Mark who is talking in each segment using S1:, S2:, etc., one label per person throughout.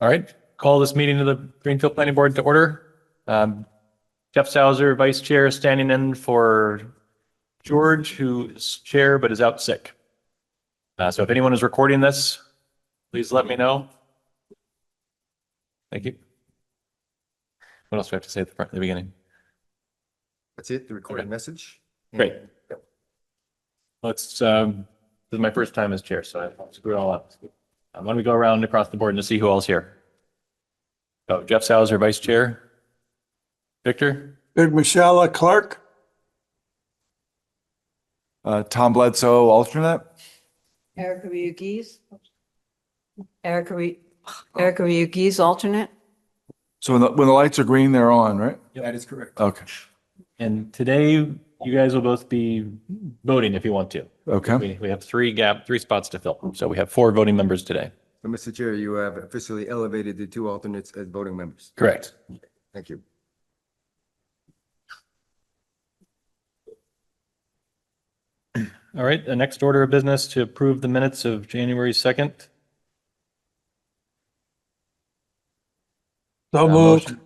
S1: All right, call this meeting of the Greenfield Planning Board to order. Um, Jeff Sauer, Vice Chair, standing in for George, who is Chair but is out sick. Uh, So if anyone is recording this, please let me know. Thank you. What else do I have to say at the front, at the beginning?
S2: That's it, the recorded message.
S1: Great. Let's, um, this is my first time as chair, so I screwed it all up. Uh, Why don't we go around across the board and see who all's here? So Jeff Sauer, Vice Chair. Victor,
S3: Big Michelle Clark.
S4: Uh, Tom Bledsoe, alternate.
S5: Erica Ryugi's. Erica, Ry- Erica Ryugi's alternate.
S4: So when the, when the lights are green, they're on, right?
S2: That is correct.
S4: Okay,
S1: and today you guys will both be voting if you want to.
S4: okay.
S1: We, we have three gap, three spots to fill. So we have four voting members today.
S2: So, Mr. Chair, you have officially elevated the two alternates as voting members.
S1: Correct.
S2: Thank you.
S1: All right, the next order of business to approve the minutes of January 2nd.
S3: So
S1: Uh,
S3: moved.
S1: motion.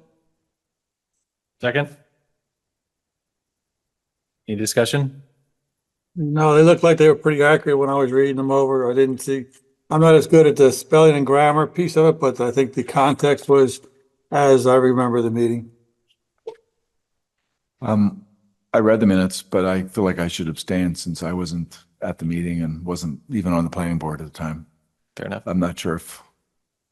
S1: Second? Any discussion?
S3: No, they looked like they were pretty accurate when I was reading them over. I didn't see, I'm not as good at the spelling and grammar piece of it, but I think the context was as I remember the meeting.
S4: Um, I read the minutes, but I feel like I should abstain since I wasn't at the meeting and wasn't even on the planning board at the time.
S1: Fair enough.
S4: I'm not sure if,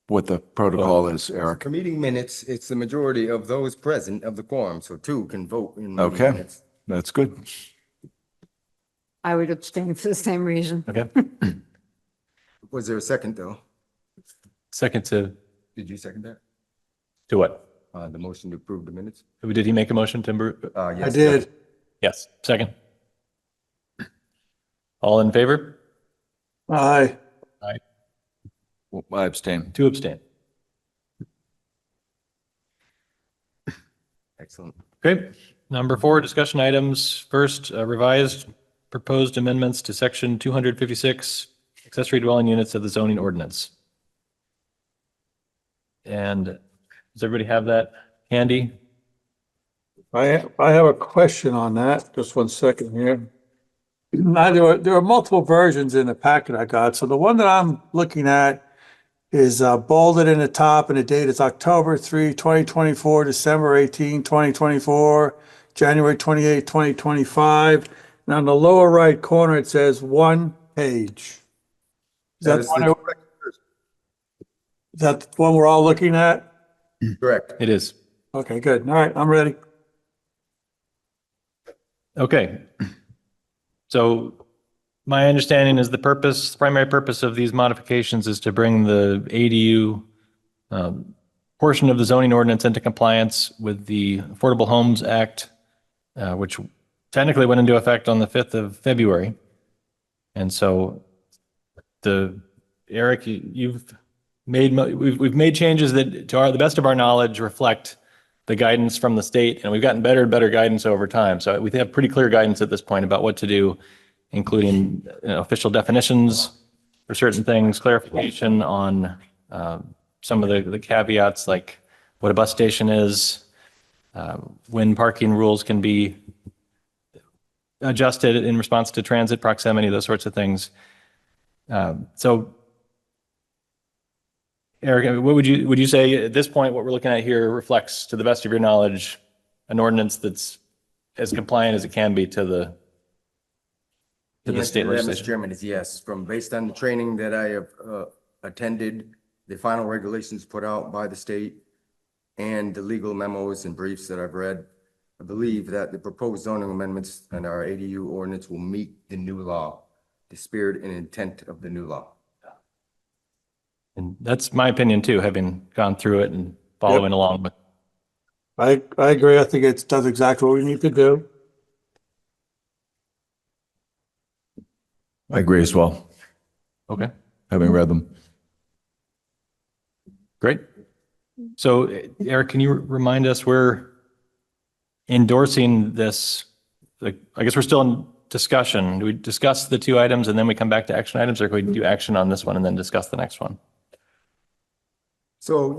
S4: what the protocol is, Eric.
S2: For meeting minutes, it's the majority of those present of the quorum, so two can vote in. meeting
S4: Okay.
S2: minutes.
S4: That's good.
S5: I would abstain for the same reason.
S1: Okay.
S2: Was there a second, though?
S1: Second to,
S2: Did you second that?
S1: to what?
S2: Uh, the motion to approve the minutes?
S1: Did he make a motion, Timber?
S2: Uh,
S3: I
S2: yes.
S3: did.
S1: Yes, second. All in favor?
S3: Aye.
S4: Well, I abstain.
S1: Two abstain.
S2: Excellent.
S1: Great. Number four, discussion items. First, uh, revised proposed amendments to section 256 accessory dwelling units of the zoning ordinance. And does everybody have that handy?
S3: I, I have a question on that. Just one second here. Now, there are, there are multiple versions in the packet I got. So the one that I'm looking at is uh, bolded in the top and the date is October 3, 2024, December 18, 2024, January 28, 2025. And on the lower right corner, it says one page. Is that,
S2: That is
S3: the one
S2: the
S3: I- is that the one we're all looking at?
S2: Correct.
S1: It is.
S3: Okay, good. All right, I'm ready.
S1: Okay. So my understanding is the purpose, primary purpose of these modifications is to bring the ADU um, portion of the zoning ordinance into compliance with the Affordable Homes Act, uh, which technically went into effect on the 5th of February. And so the, Eric, you- you've made, mo- we've, we've made changes that to our, the best of our knowledge reflect the guidance from the state, and we've gotten better and better guidance over time. So we have pretty clear guidance at this point about what to do, including you know, official definitions for certain things, clarification on um, some of the the caveats, like what a bus station is, uh, when parking rules can be adjusted in response to transit proximity, those sorts of things. Um, So Eric, what would you, would you say at this point, what we're looking at here reflects, to the best of your knowledge, an ordinance that's as compliant as it can be to the, to
S2: The
S1: the
S2: answer
S1: state
S2: that, Mr.
S1: legislation?
S2: Chairman is yes, from based on the training that I have uh, attended, the final regulations put out by the state and the legal memos and briefs that I've read, I believe that the proposed zoning amendments and our ADU ordinance will meet the new law, the spirit and intent of the new law.
S1: And that's my opinion too, having gone through it and following along with
S3: I, I agree. I think it does exactly what we need to do.
S4: I agree as well,
S1: Okay,
S4: having read them.
S1: great. So eh, Eric, can you remind us, we're endorsing this, like, I guess we're still in discussion. Do we discuss the two items and then we come back to action items or can we do action on this one and then discuss the next one?
S2: So